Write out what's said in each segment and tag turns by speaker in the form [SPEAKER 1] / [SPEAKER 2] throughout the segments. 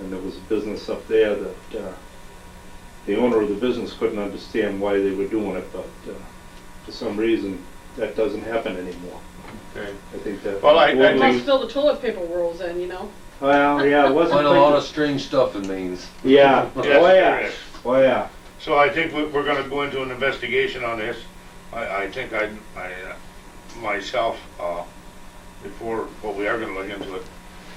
[SPEAKER 1] and there was business up there that uh, the owner of the business couldn't understand why they were doing it, but uh, for some reason, that doesn't happen anymore.
[SPEAKER 2] Okay.
[SPEAKER 1] I think that.
[SPEAKER 2] Well, I- I
[SPEAKER 1] Well,
[SPEAKER 2] think-
[SPEAKER 3] Like fill the toilet paper rolls in, you know?
[SPEAKER 1] Well, yeah, it wasn't.
[SPEAKER 4] Quite a lot
[SPEAKER 1] thinking-
[SPEAKER 4] of strange stuff in Maine.
[SPEAKER 1] Yeah, oh
[SPEAKER 2] Yes, there
[SPEAKER 1] yeah,
[SPEAKER 2] is.
[SPEAKER 1] oh yeah.
[SPEAKER 2] So I think we- we're gonna go into an investigation on this. I, I think I, I, uh, myself, uh, before, well, we are gonna look into it.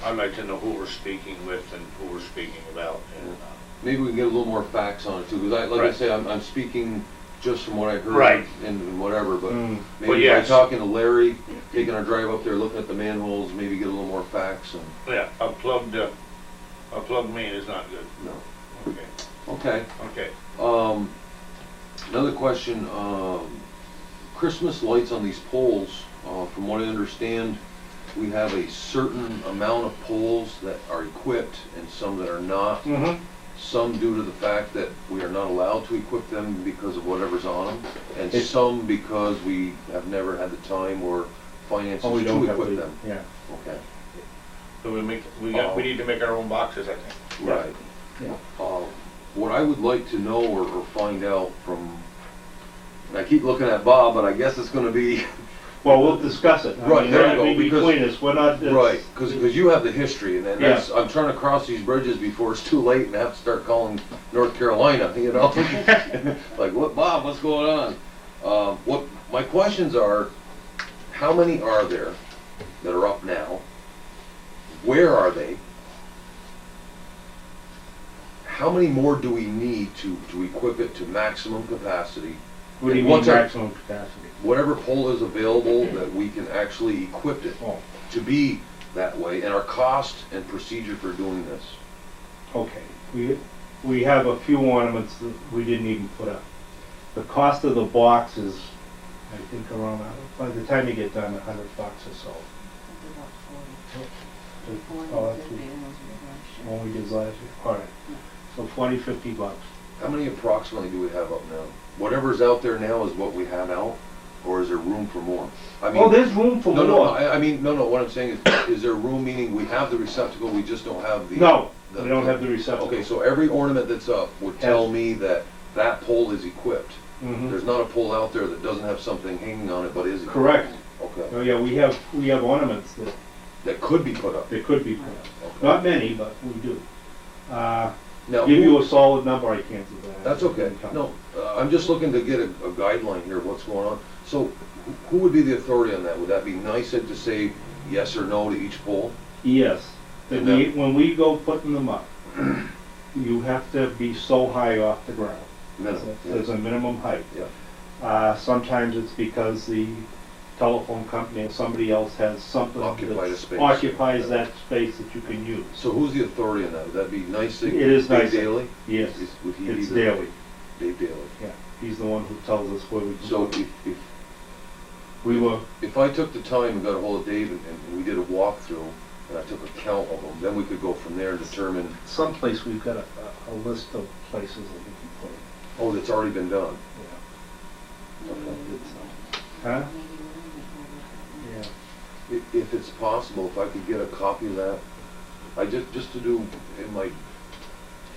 [SPEAKER 2] I'd like to know who we're speaking with and who we're speaking about and, uh,
[SPEAKER 4] Maybe we can get a little more facts on it too, because I, like I
[SPEAKER 2] Right.
[SPEAKER 4] say, I'm, I'm speaking just from what I heard.
[SPEAKER 2] Right.
[SPEAKER 4] And whatever, but
[SPEAKER 1] Mm.
[SPEAKER 2] Well,
[SPEAKER 4] maybe by
[SPEAKER 2] yes.
[SPEAKER 4] talking to Larry, taking our drive up there, looking at the manholes, maybe get a little more facts and,
[SPEAKER 2] yeah, a plugged, uh, a plugged main is not good.
[SPEAKER 4] no.
[SPEAKER 2] Okay,
[SPEAKER 4] Okay,
[SPEAKER 2] okay.
[SPEAKER 4] um, another question, um, Christmas lights on these poles, uh, from what I understand, we have a certain amount of poles that are equipped and some that are not.
[SPEAKER 1] Mm-hmm.
[SPEAKER 4] Some due to the fact that we are not allowed to equip them because of whatever's on them, and
[SPEAKER 1] It's-
[SPEAKER 4] some because we have never had the time or
[SPEAKER 1] Oh,
[SPEAKER 4] finances to equip them.
[SPEAKER 1] Yeah.
[SPEAKER 4] Okay,
[SPEAKER 2] So we make, we got, we need to make our own boxes, I think.
[SPEAKER 1] Yeah.
[SPEAKER 4] right.
[SPEAKER 1] Yeah.
[SPEAKER 4] Uh, What I would like to know or, or find out from, and I keep looking at Bob, but I guess it's gonna be,
[SPEAKER 1] Well, we'll discuss it. I
[SPEAKER 4] Right,
[SPEAKER 1] mean,
[SPEAKER 4] there you
[SPEAKER 1] that'd
[SPEAKER 4] go,
[SPEAKER 1] be
[SPEAKER 4] because-
[SPEAKER 1] Between us, we're not. it's-
[SPEAKER 4] right, cause, 'cause you have the history, and then that's, I'm trying to cross these bridges before it's too late and have to start calling North Carolina, you know? Like, what, Bob, what's going on? Um, what, my questions are, how many are there that are up now? Where are they? How many more do we need to, to equip it to maximum capacity?
[SPEAKER 1] What do you mean
[SPEAKER 4] What's our-
[SPEAKER 1] maximum capacity?
[SPEAKER 4] Whatever pole is available, that we can actually equip it
[SPEAKER 1] Oh,
[SPEAKER 4] to be that way, and our cost and procedure for doing this.
[SPEAKER 1] okay. We, we have a few ornaments that we didn't even put up. The cost of the box is, I think around, uh, by the time you get done, a hundred bucks or so. Oh, that's what- When we did last year, all right. So forty, fifty bucks.
[SPEAKER 4] How many approximately do we have up now? Whatever's out there now is what we have out, or is there room for more? I mean,
[SPEAKER 1] Oh, there's room for
[SPEAKER 4] No, no,
[SPEAKER 1] more.
[SPEAKER 4] I, I mean, no, no, what I'm saying is, is there room, meaning we have the receptacle, we just don't have the.
[SPEAKER 1] No, we don't have the receptacle.
[SPEAKER 4] Okay, so every ornament that's up would tell
[SPEAKER 1] Yes.
[SPEAKER 4] me that that pole is equipped.
[SPEAKER 1] Mhm.
[SPEAKER 4] There's not a pole out there that doesn't have something hanging on it, but is. equipped.
[SPEAKER 1] Correct.
[SPEAKER 4] Okay,
[SPEAKER 1] Oh, yeah, we have, we have ornaments that,
[SPEAKER 4] that could be put up.
[SPEAKER 1] that could be put up.
[SPEAKER 4] Okay.
[SPEAKER 1] Not many, but we do. Uh,
[SPEAKER 4] Now,
[SPEAKER 1] give
[SPEAKER 4] who-
[SPEAKER 1] you a solid number, I can't do that.
[SPEAKER 4] That's okay, no, uh, I'm just looking to get a, a guideline here, of what's going on. So wh- who would be the authority on that? Would that be NICEAG to say yes or no to each poll?
[SPEAKER 1] Yes, that
[SPEAKER 4] And
[SPEAKER 1] we,
[SPEAKER 4] that-
[SPEAKER 1] when we go putting them up, you have to be so high off the ground.
[SPEAKER 4] Minimum.
[SPEAKER 1] There's a minimum height.
[SPEAKER 4] Yeah.
[SPEAKER 1] Uh, sometimes it's because the telephone company or somebody else has something
[SPEAKER 4] Occupied a
[SPEAKER 1] that's-
[SPEAKER 4] space.
[SPEAKER 1] occupies that space that you can use.
[SPEAKER 4] So who's the authority on that? Would that be NICEAG?
[SPEAKER 1] It is
[SPEAKER 4] Dave
[SPEAKER 1] NYSEG.
[SPEAKER 4] Daly?
[SPEAKER 1] Yes,
[SPEAKER 4] Is- Would he be
[SPEAKER 1] it's
[SPEAKER 4] the?
[SPEAKER 1] daily,
[SPEAKER 4] Dave Daly.
[SPEAKER 1] yeah. He's the one who tells us where we can.
[SPEAKER 4] So
[SPEAKER 1] put
[SPEAKER 4] if,
[SPEAKER 1] it.
[SPEAKER 4] if,
[SPEAKER 1] We were,
[SPEAKER 4] if I took the time and got a hold of Dave and, and we did a walkthrough, and I took a count of them, then we could go from there and determine,
[SPEAKER 1] someplace we've got a, a a list of places that we can put it.
[SPEAKER 4] oh, that's already been done.
[SPEAKER 1] Yeah.
[SPEAKER 4] Okay.
[SPEAKER 1] Huh? Yeah.
[SPEAKER 4] If, if it's possible, if I could get a copy of that, I just, just to do in my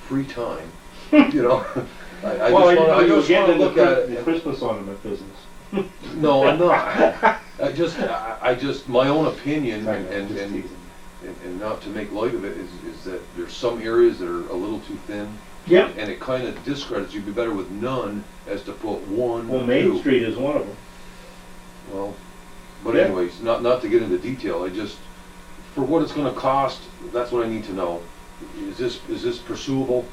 [SPEAKER 4] free time, you know? I, I just
[SPEAKER 1] Well,
[SPEAKER 4] wanna, I
[SPEAKER 1] you- you
[SPEAKER 4] just
[SPEAKER 1] get
[SPEAKER 4] wanna
[SPEAKER 1] in the
[SPEAKER 4] look at
[SPEAKER 1] Chris-
[SPEAKER 4] it.
[SPEAKER 1] the
[SPEAKER 4] and-
[SPEAKER 1] Christmas ornament business.
[SPEAKER 4] No, I'm not. I just, I, I just, my own opinion
[SPEAKER 1] Sorry,
[SPEAKER 4] and,
[SPEAKER 1] I'm
[SPEAKER 4] and,
[SPEAKER 1] just
[SPEAKER 4] and,
[SPEAKER 1] teasing.
[SPEAKER 4] and not to make light of it, is, is that there's some areas that are a little too thin.
[SPEAKER 1] Yep.
[SPEAKER 4] And it kinda discredits, you'd be better with none as to put one,
[SPEAKER 1] Well, Main
[SPEAKER 4] two.
[SPEAKER 1] Street is one of them.
[SPEAKER 4] Well, but
[SPEAKER 1] Yeah.
[SPEAKER 4] anyways, not, not to get into detail, I just, for what it's gonna cost, that's what I need to know. Is this, is this pursuable?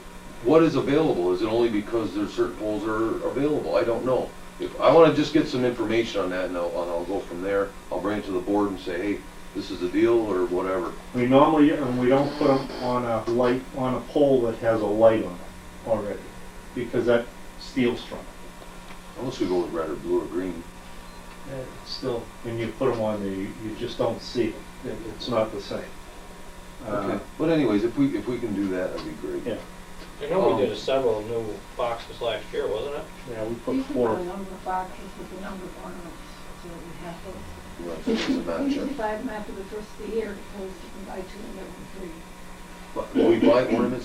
[SPEAKER 4] What is available? Is it only because there's certain poles are available? I don't know. If, I wanna just get some information on that and I'll, and I'll go from there. I'll bring it to the board and say, hey, this is the deal or whatever.
[SPEAKER 1] We normally, and we don't put them on a light, on a pole that has a light on it already, because that steals from it.
[SPEAKER 4] Unless we go with red or blue or green.
[SPEAKER 1] It's Still, when you put them on there, you you just don't see it. It- It's not the same. Uh,
[SPEAKER 4] Okay. But anyways, if we, if we can do that, that'd be great.
[SPEAKER 1] Yeah.
[SPEAKER 5] I know we did a several new boxes last year, wasn't it?
[SPEAKER 1] Yeah, we
[SPEAKER 6] You
[SPEAKER 1] put
[SPEAKER 6] can put
[SPEAKER 1] four.
[SPEAKER 6] a number of boxes with a number of ornaments, so we have those.
[SPEAKER 4] Right, so it's a
[SPEAKER 6] We usually
[SPEAKER 4] matchup.
[SPEAKER 6] buy them after the first of the year, because you can buy two and get one free.
[SPEAKER 4] But we buy ornaments